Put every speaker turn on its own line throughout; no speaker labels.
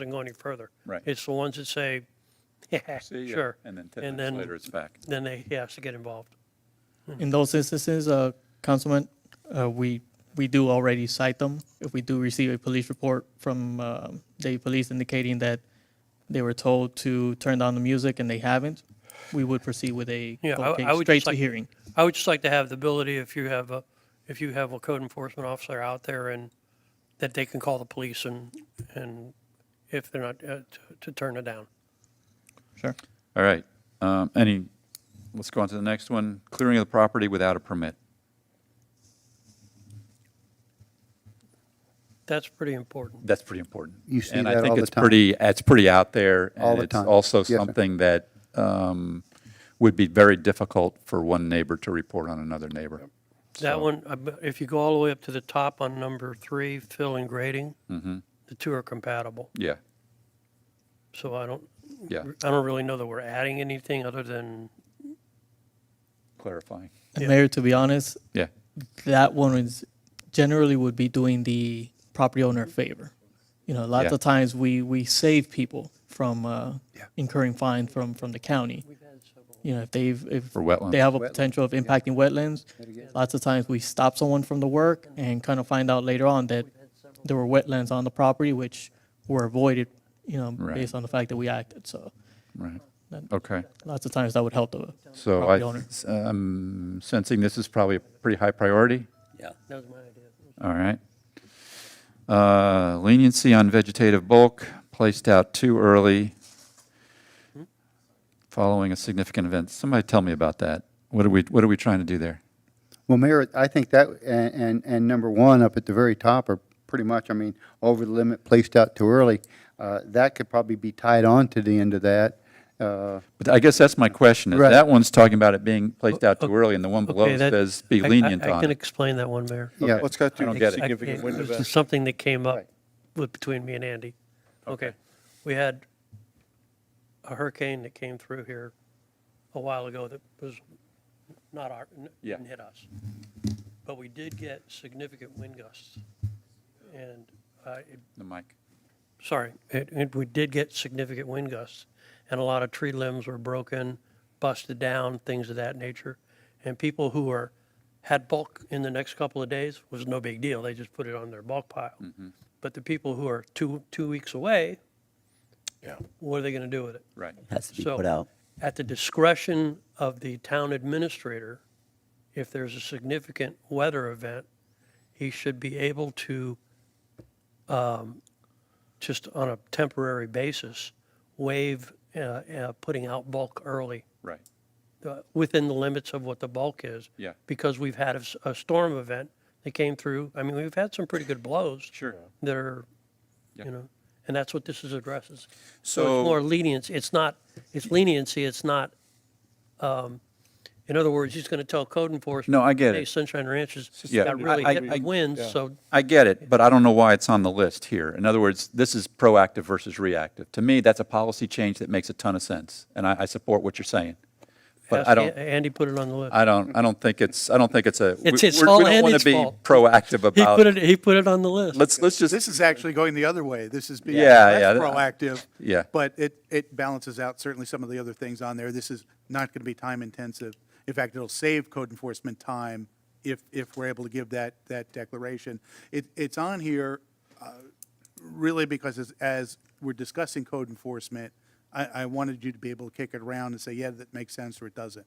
doesn't go any further.
Right.
It's the ones that say, yeah,
See ya,
sure.
And then 10
And
minutes
then-
later, it's back.
Then they, he has to get involved.
In those instances, uh, Councilman, uh, we, we do already cite them. If we do receive a police report from, um the police indicating that they were told to turn down the music and they haven't, we would proceed with a
Yeah, I-
court
I
case
would
straight
just
to
like-
hearing.
I would just like to have the ability, if you have a, if you have a code enforcement officer out there and that they can call the police and, and if they're not, uh, to, to turn it down.
Sure.
All right. Um, Any, let's go on to the next one. Clearing of the property without a permit.
That's pretty important.
That's pretty important.
You see
And
that
I think
all the
it's
time.
pretty, it's pretty out there.
All
and
the time.
It's also
Yes, sir.
something that um, would be very difficult for one neighbor to report on another neighbor.
That one, I bet- if you go all the way up to the top on number three, fill and grading, the two are compatible.
Mm-hmm. Yeah,
So I don't,
yeah,
I don't really know that we're adding anything other than,
clarifying.
And Mayor, to be honest,
Yeah,
that one is generally would be doing the property owner a favor. You know, a lot
Yeah.
of times we, we save people from uh,
Yeah.
incurring fine from, from the county. You know, if they've, if
For wetlands.
they have a potential of impacting wetlands, lots of times we stop someone from the work and kind of find out later on that there were wetlands on the property which were avoided, you know,
Right.
based on the fact that we acted. So
right.
Then-
Okay.
lots of times that would help the
So I,
property owner.
I'm sensing this is probably a pretty high priority.
yeah, that was my idea.
All right. Uh, Leniency on vegetative bulk, placed out too early following a significant event. Somebody tell me about that. What are we, what are we trying to do there?
Well, Mayor, I think that, and, and, and number one up at the very top are pretty much, I mean, over the limit, placed out too early. Uh, that could probably be tied on to the end of that. Uh,
But I guess that's my question. is
Right.
That one's talking about it being placed out too early, and the one below
Okay, that-
says be
I- I-
lenient
I can
on it.
explain that one, Mayor.
yeah,
Let's go
I don't
through
get
the
it.
I-
significant
it
window
was
back.
just Something that came up
Right.
with, between me and Andy. Okay. We had a hurricane that came through here a while ago that was not our, n-
Yeah.
didn't hit us. But we did get significant wind gusts. And uh, it
The mic.
sorry, it, it, we did get significant wind gusts, and a lot of tree limbs were broken, busted down, things of that nature. And people who were, had bulk in the next couple of days was no big deal, they just put it on their bulk pile. But the people who are two, two weeks away,
Yeah.
what are they gonna do with it?
Right.
has to be
So-
put out.
At the discretion of the town administrator, if there's a significant weather event, he should be able to, um, just on a temporary basis, waive, uh, uh, putting out bulk early,
Right.
uh, within the limits of what the bulk is.
Yeah.
Because we've had a, s- a storm event that came through. I mean, we've had some pretty good blows.
Sure.
That are,
Yeah.
you know, and that's what this is addresses.
So-
it's more leniency. It's not, it's leniency. It's not, um, in other words, he's going to tell code enforcement.
No, I get
Hey,
it.
Sunshine Ranch has
Yeah.
got really
I-
hit
I-
with winds, so
I get it, but I don't know why it's on the list here. In other words, this is proactive versus reactive. To me, that's a policy change that makes a ton of sense, and I, I support what you're saying. But
ask
I don't,
An- Andy put it on the list.
I don't, I don't think it's, I don't think it's a. we-
It's- it's
we're-
all
We don't want
Andy's
to be
fault.
proactive
He put
about,
it, he put it on the list.
let's, let's just,
This is actually going the other way. This is being
Yeah,
less
yeah, that-
proactive.
Yeah.
But it, it balances out certainly some of the other things on there. This is not going to be time intensive. In fact, it'll save code enforcement time if, if we're able to give that, that declaration. It, it's on here uh, really because as, as we're discussing code enforcement, I, I wanted you to be able to kick it around and say, yeah, that makes sense or it doesn't.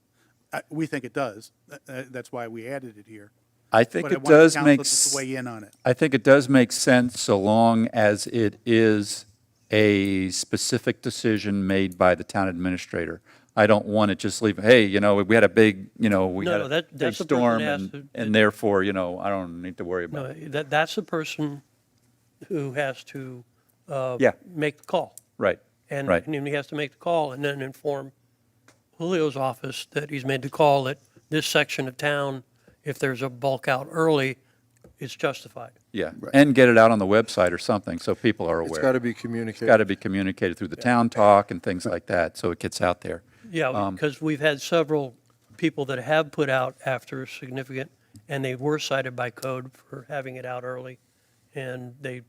Uh, We think it does. Uh, uh, That's why we added it here.
I think
But I
it
wanted
does
council
make.
just to Weigh in on it.
I think it does make sense so long as it is a specific decision made by the town administrator. I don't want to just leave, hey, you know, we had a big, you know, we
No,
had
no,
a
that-
big
that's the person
storm,
that
and
has to-
and therefore, you know, I don't need to worry about
No,
it.
that, that's the person who has to, uh,
Yeah.
make the call.
Right,
And,
right,
and then he has to make the call and then inform Julio's office that he's made the call that this section of town, if there's a bulk out early, it's justified.
yeah. And get it out on the website or something, so people are aware.
It's got to be
It's got to
communicated.
be communicated through the town talk and things like that, so it gets out there.
Yeah, because we've had several people that have put out after significant, and they were cited by code for having it out early, and they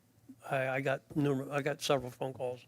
I, I got numerous, I got several phone calls